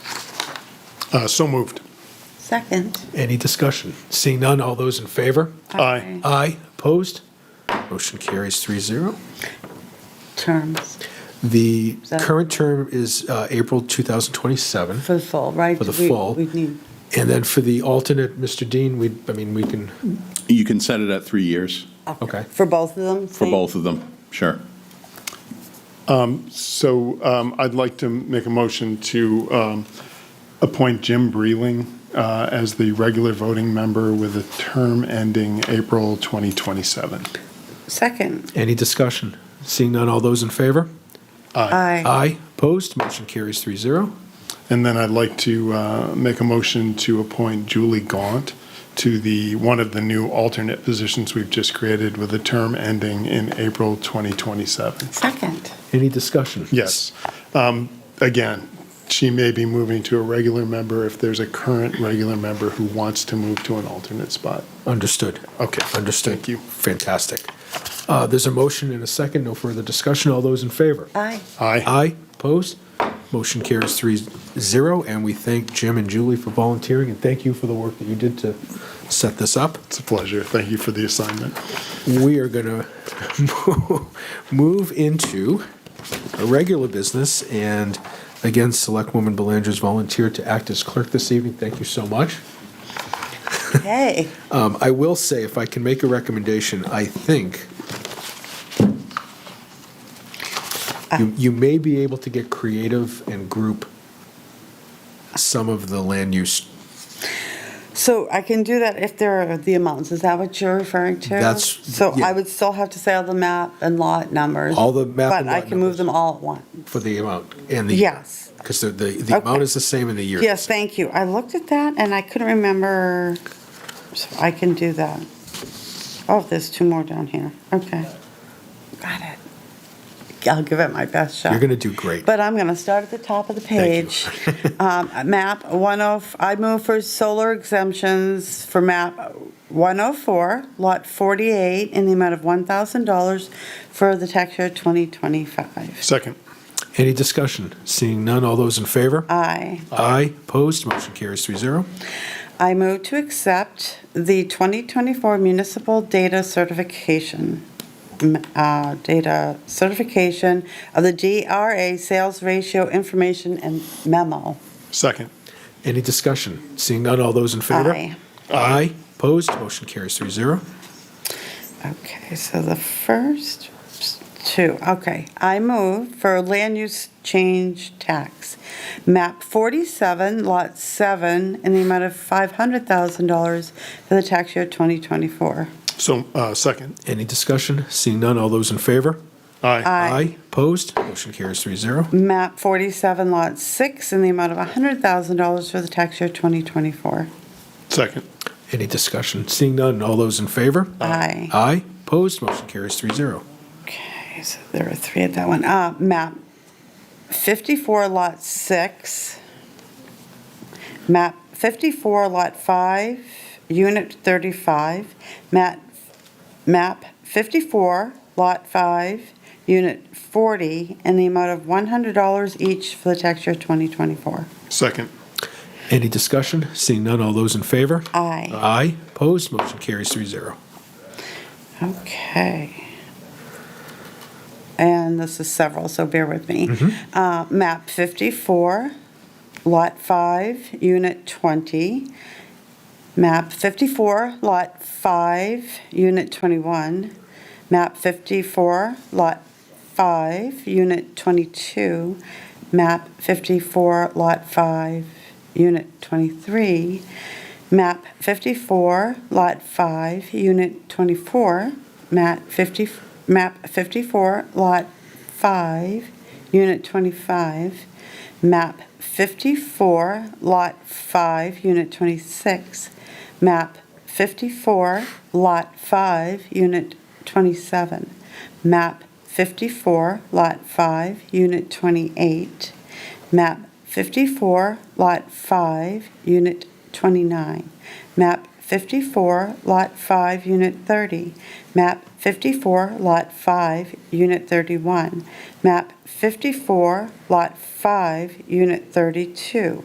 Uh, So moved. Second. Any discussion? Seeing none, all those in favor? Aye. Aye. Opposed? Motion carries 3-0. Terms The So- current term is uh, April 2027. for the fall, right? For the We- fall. We need, And then for the alternate, Mr. Dean, we, I mean, we can, You can set it at three years Okay. okay. For both of them? for same? both of them, sure. So um, I'd like to make a motion to um, appoint Jim Breeling uh, as the regular voting member with a term ending April 2027. Second. any discussion? Seeing none, all those in favor? Aye. Aye. Opposed? Motion carries 3-0. And then I'd like to uh, make a motion to appoint Julie Gaunt to the, one of the new alternate positions we've just created with a term ending in April 2027. Second. Any discussion? Yes. Um, Again, she may be moving to a regular member if there's a current regular member who wants to move to an alternate spot. Understood. Okay. Understood. Thank you. Fantastic. Uh, There's a motion and a second, no further discussion. All those in favor? Aye. Aye. Aye. Opposed? Motion carries three zero, and we thank Jim and Julie for volunteering, and thank you for the work that you did to set this up. It's a pleasure. Thank you for the assignment. We are going to move into a regular business, and again, Selectwoman Belanger's volunteered to act as clerk this evening. Thank you so much. Hey, Um, I will say, if I can make a recommendation, I think Ah. you, you may be able to get creative and group some of the land use. so I can do that if there are the amounts. Is that what you're referring to? That's- So yeah. I would still have to say all the map and lot numbers. All the map and But I lot can move numbers. them all at once. For the amount and the. Yes. Because the, the, the amount Okay. is the same in the year. Yes, thank you. I looked at that and I couldn't remember, so I can do that. Oh, there's two more down here. Okay. Got it. I'll give it my best shot. You're going to do great. But I'm going to start at the top of the Thank page. Um, Map 104, I move for solar exemptions for map 104, lot 48, in the amount of $1,000 for the tax year 2025. Second. Any discussion? Seeing none, all those in favor? Aye. Aye. Opposed? Motion carries three zero. I move to accept the 2024 municipal data certification, m- uh, data certification of the DRA sales ratio information and memo. Second. Any discussion? Seeing none, all those in favor? Aye. Aye. Opposed? Motion carries three zero. Okay, so the first two, okay. I move for land use change tax. Map 47, Lot 7, in the amount of $500,000 for the tax year 2024. So, uh, second. Any discussion? Seeing none, all those in favor? Aye. Aye. Opposed? Motion carries three zero. Map 47, Lot 6, in the amount of $100,000 for the tax year 2024. Second. Any discussion? Seeing none, all those in favor? Aye. Aye. Opposed? Motion carries three zero. Okay, so there are three at that one. Uh, map 54, lot 6. Map 54, lot 5, unit 35. Map, map 54, lot 5, unit 40, in the amount of $100 each for the tax year 2024. Second. Any discussion? Seeing none, all those in favor? Aye. Aye. Opposed? Motion carries three zero. Okay. And this is several, so bear with me. Uh, Map 54, Lot 5, Unit 20. Map 54, Lot 5, Unit 21. Map 54, Lot 5, Unit 22. Map 54, Lot 5, Unit 23. Map 54, Lot 5, Unit 24. Map 50, Map 54, Lot 5, Unit 25. Map 54, Lot 5, Unit 26. Map 54, Lot 5, Unit 27. Map 54, Lot 5, Unit 28. Map 54, Lot 5, Unit 29. Map 54, Lot 5, Unit 30. Map 54, Lot 5, Unit 31. Map 54, Lot 5, Unit 32.